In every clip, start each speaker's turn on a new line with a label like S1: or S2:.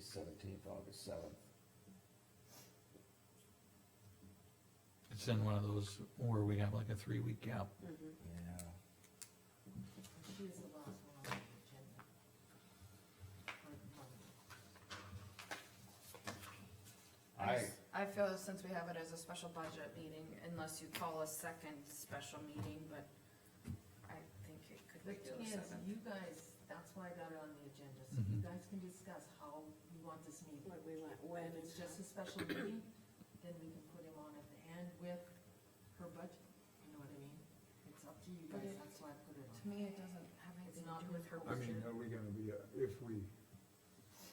S1: seventeenth, August seventh.
S2: It's in one of those where we have like a three-week gap.
S1: Yeah.
S3: She was the last one on the agenda. For
S1: I,
S3: Monday.
S4: s- I feel since we have it as a special budget meeting, unless you call a second special meeting, but I think it could
S3: The
S4: be
S3: thing is,
S4: the seventh.
S3: you guys, that's why I got it on the agenda, so you
S5: Mm-hmm.
S2: Mhm.
S3: guys can discuss how you want this meeting.
S6: What we want, when
S3: If
S6: and
S3: it's
S6: just,
S3: just a special meeting, then we can put him on at the end with her budget, you know what I mean? It's up to you
S4: But
S3: guys,
S4: it-
S3: that's why I put it on.
S4: To me, it doesn't have anything to do with her
S5: I
S4: budget.
S5: mean, are we gonna be, uh, if we,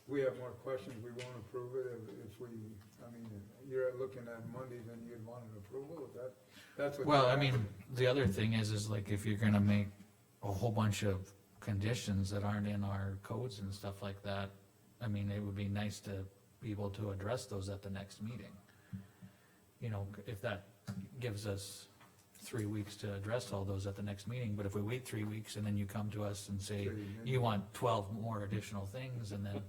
S5: we have more questions, we won't approve it, if- if we, I mean, you're looking at Monday, then you'd want an approval, that, that's what.
S2: Well, I mean, the other thing is, is like if you're gonna make a whole bunch of conditions that aren't in our codes and stuff like that, I mean, it would be nice to be able to address those at the next meeting. You know, if that gives us three weeks to address all those at the next meeting, but if we wait three weeks and then you come to us and say, you want twelve more additional things, and then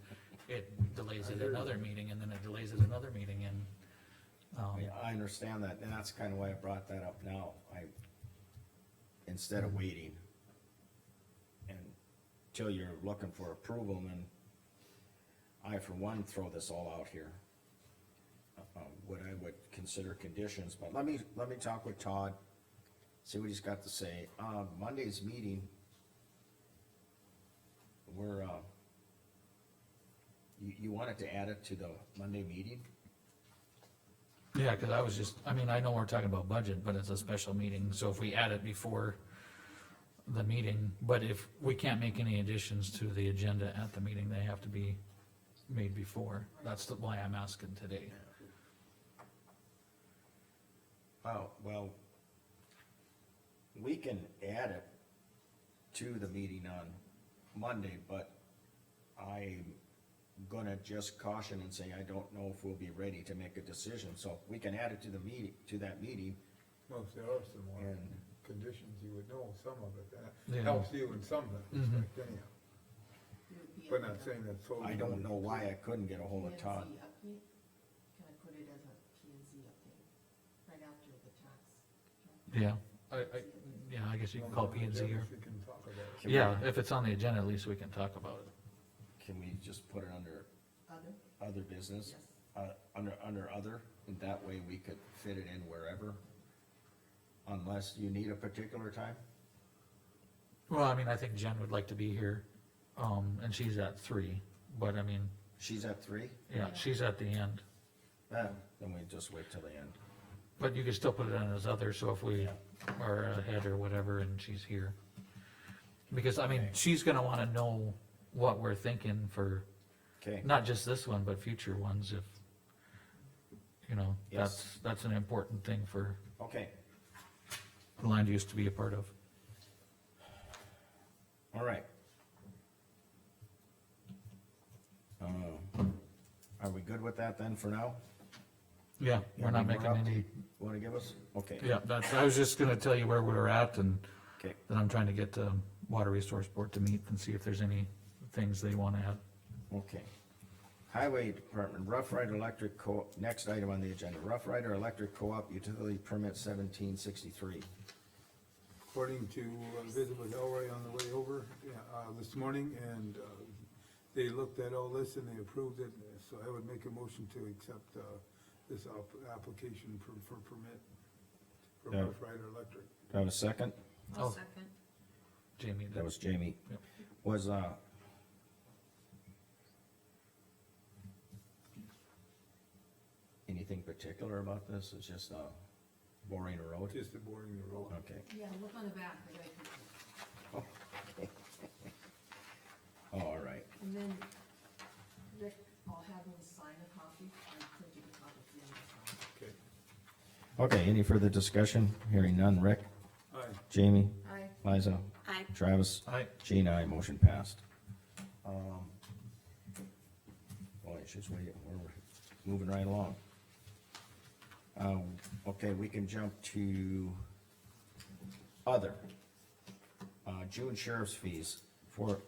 S2: it delays it another meeting, and then it delays it another meeting, and, um,
S1: I- I understand that, and that's kinda why I brought that up now, I, instead of waiting. And till you're looking for approval, then I for one throw this all out here. Uh, what I would consider conditions, but let me, let me talk with Todd, see what he's got to say, uh, Monday's meeting. We're, uh. You, you wanted to add it to the Monday meeting?
S2: Yeah, cause I was just, I mean, I know we're talking about budget, but it's a special meeting, so if we add it before the meeting, but if we can't make any additions to the agenda at the meeting, they have to be made before. That's the, why I'm asking today.
S1: Oh, well, we can add it to the meeting on Monday, but I'm gonna just caution and say I don't know if we'll be ready to make a decision, so we can add it to the meeting, to that meeting,
S5: Well, if there are some more
S1: And-
S5: conditions, you would know some of it,
S2: Yeah. Mm-hmm.
S5: that helps you in some respect anyhow.
S3: It would be
S5: But
S3: at
S5: not
S3: the-
S5: saying that totally.
S1: I don't know why I couldn't get a hold of Todd.
S3: P and Z update, can I put it as a P and Z update, right after the tax?
S2: Yeah, I, I, yeah, I guess you can call P and Z or,
S5: We can talk about it.
S1: Can we-
S2: yeah, if it's on the agenda, at least we can talk about it.
S1: Can we just put it under
S3: Other,
S1: other business?
S3: yes.
S1: uh, under, under other, and that way we could fit it in wherever. Unless you need a particular time,
S2: Well, I mean, I think Jen would like to be here, um, and she's at three, but I mean,
S1: she's at three,
S2: yeah, she's at the end.
S1: eh, then we just wait till the end.
S2: But you can still put it on as other, so if we are ahead or whatever and she's here. Because, I mean, she's gonna wanna know what we're thinking for,
S1: Okay,
S2: not just this one, but future ones if, you know, that's,
S1: Yes.
S2: that's an important thing for
S1: okay,
S2: the land use to be a part of.
S1: all right. Um, Are we good with that then for now?
S2: Yeah, we're not making
S1: up to-
S2: any,
S1: Wanna give us, okay,
S2: yeah, that's, I was just gonna tell you where we were at and
S1: okay,
S2: then I'm trying to get the Water Resource Board to meet and see if there's any things they wanna add.
S1: okay. Highway Department, Rough Rider Electric Co, next item on the agenda, Rough Rider Electric Co-op Utility Permit seventeen sixty-three.
S5: According to a visit with Elroy on the way over, yeah, uh, this morning, and, uh, they looked at all this and they approved it, so I would make a motion to accept, uh, this op- application for, for permit from
S1: Yeah.
S5: Rough Rider Electric.
S1: Do I have a second?
S2: Oh.
S4: I'll second.
S2: Jamie,
S1: That was Jamie.
S2: Yep.
S1: Was, uh. Anything particular about this? It's just, uh, boring a road?
S5: Just the boring the road.
S1: Okay.
S3: Yeah, look on the back, I got a picture.
S1: Oh, all right.
S3: And then, Rick, I'll have him sign a copy, I printed a copy for him to sign.
S5: Okay,
S1: Okay, any further discussion? Hearing none. Rick?
S5: aye.
S1: Jamie?
S4: Aye.
S1: Liza?
S6: I,
S1: Travis?
S2: Aye.
S1: Gene, aye. Motion passed. Um. Boy, it's just waiting. We're moving right along. Um, okay, we can jump to other. Uh, June sheriff's fees for